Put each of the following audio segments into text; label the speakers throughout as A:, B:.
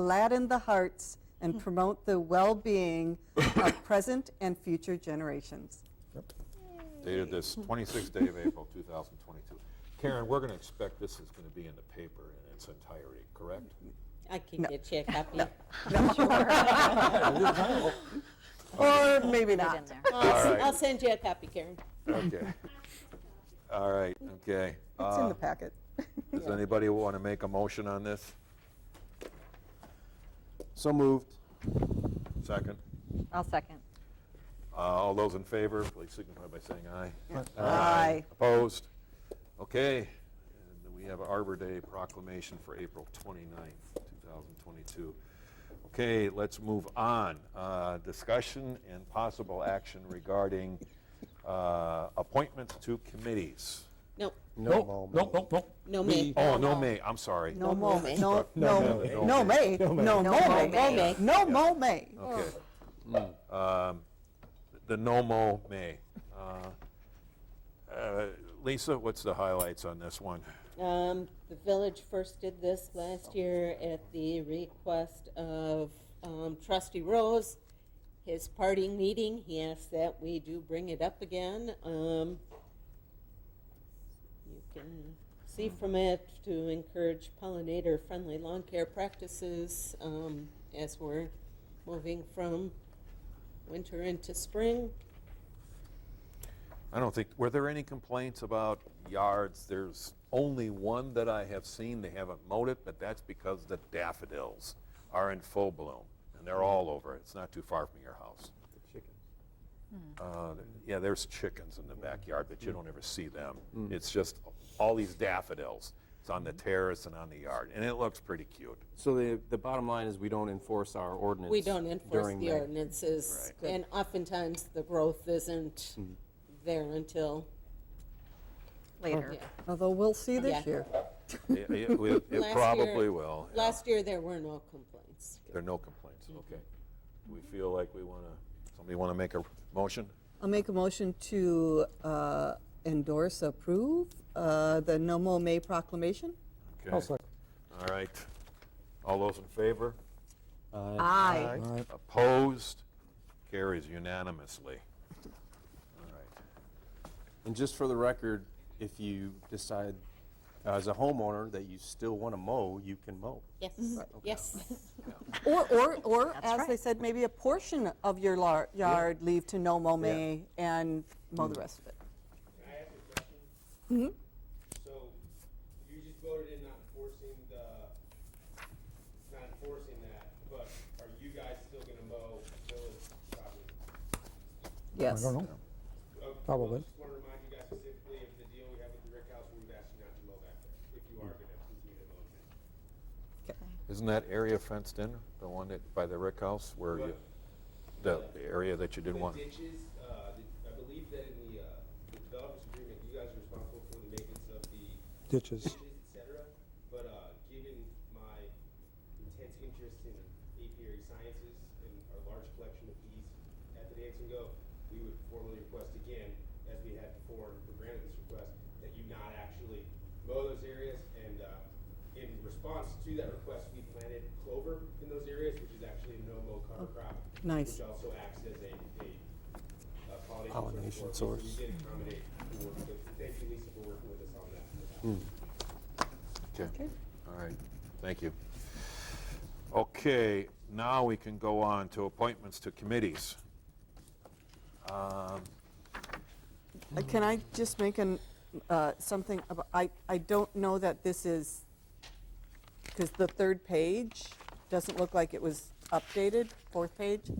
A: gladden the hearts, and promote the well-being of present and future generations.
B: Dated this 26th day of April, 2022. Karen, we're going to expect this is going to be in the paper in its entirety, correct?
C: I can get you a copy.
A: Or maybe not.
C: I'll s-
B: right.
C: I'll send you a copy, Karen.
B: Okay. All right, okay.
A: It's in
B: Uh,
A: the packet.
B: Does anybody want to make a motion on this?
D: So moved.
B: Second?
E: I'll second.
B: Uh, All those in favor, please signify by saying aye.
A: Aye.
B: Opposed? Okay. And then we have Arbor Day proclamation for April 29th, 2022. Okay, let's move on. Uh, Discussion and possible action regarding uh, appointments to committees.
C: No,
D: No,
F: Nope, nope, nope.
C: no me.
B: Oh, no, May, I'm sorry.
A: No mo,
C: may.
A: no, no,
B: may.
A: no may, no mo may,
C: may.
A: no mo may.
B: Okay. Um, The no-mo May. Uh, uh, Lisa, what's the highlights on this one?
C: Um, the village first did this last year at the request of, um, trustee Rose. His parting meeting, he asked that we do bring it up again, um. You can see from it to encourage pollinator-friendly lawn care practices, um, as we're moving from winter into spring.
B: I don't think, were there any complaints about yards? There's only one that I have seen, they haven't mowed it, but that's because the daffodils are in full bloom, and they're all over it. It's not too far from your house. Uh, th- Yeah, there's chickens in the backyard, but you
C: Hmm.
B: don't ever see them. It's just all these daffodils. It's on the
C: Hmm.
B: terrace and on the yard, and it looks pretty cute.
D: So the, the bottom line is we don't enforce our ordinance.
C: We don't enforce
D: during
C: the
D: May.
C: ordinances, and oftentimes the growth isn't
B: Hmm.
C: there until,
E: Later.
C: yeah.
A: Although we'll see
C: Yeah.
A: this year.
B: It- It will- it
C: Last year-
B: probably will. yeah.
C: Last year, there were no complaints.
B: There are no complaints, okay. Do we feel like we want to, somebody want to make a motion?
A: I'll make a motion to uh, endorse, approve uh, the no mo may proclamation.
B: Okay. All right. All those in favor?
A: Aye.
B: Opposed? Carries unanimously. All right.
D: And just for the record, if you decide as a homeowner that you still want to mow, you can mow.
C: Yes, yes.
A: Or, or, or, as they said, maybe a portion of your lar- yard leave to no mo may and mow
D: Mm.
A: the rest of it.
G: Can I ask a question? So, you just voted in not enforcing the, not enforcing that, but are you guys still gonna mow village property?
A: Yes.
G: Uh, well,
F: Probably.
G: Just wanna remind you guys specifically of the deal we have with the Rick House, where we've asked you not to mow back there, if you are gonna continue to mow it.
B: Isn't that area fenced in, the one that, by the Rick House, where you, the the area that you didn't want?
G: The ditches, uh, the- I believe that in the, uh, the developers agreement, you guys are responsible for the maintenance of the
F: Ditches.
G: ditches, et cetera. But uh, given my intense interest in apiary sciences and our large collection of bees at the Dance and Go, we would formally request again, as we had before, and we granted this request, that you not actually mow those areas. And uh, in response to that request, we planted clover in those areas, which is actually a no-mow cover crop.
A: nice.
G: Which also acts as a, a uh,
D: Pollination
G: pollination
D: source.
G: source. So We did accommodate, for working with- thank you, Lisa, for working with us on that.
B: Okay. All right, thank you. Okay, now we can go on to appointments to committees. Um,
A: Uh, Can I just make an, uh, something about, I, I don't know that this is, because the third page doesn't look like it was updated, fourth page?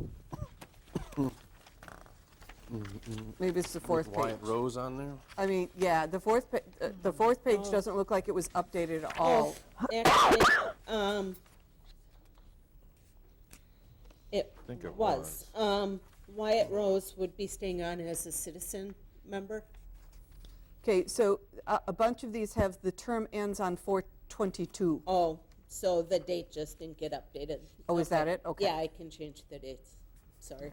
A: Maybe it's the fourth page.
D: Mm-hmm. Wyatt Rose on there?
A: I mean, yeah, the fourth, pa- uh, the fourth page doesn't look like it was updated
C: Oh,
A: at all.
C: Actually,
A: Oh.
C: um, it
B: think it
C: was. Um, Wyatt Rose would be staying on as a citizen member.
A: Okay, so uh, a bunch of these have, the term ends on 422.
C: Oh, so the date just didn't get updated.
A: Oh, is that
C: Okay.
A: it? Okay.
C: Yeah, I can change the dates. Sorry.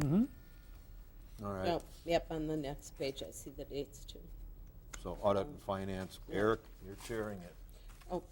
A: Yep,
B: All right,
C: No, yep, on the next page, I see the dates too.
B: so audit and finance, Eric, you're chairing it.
C: Oh,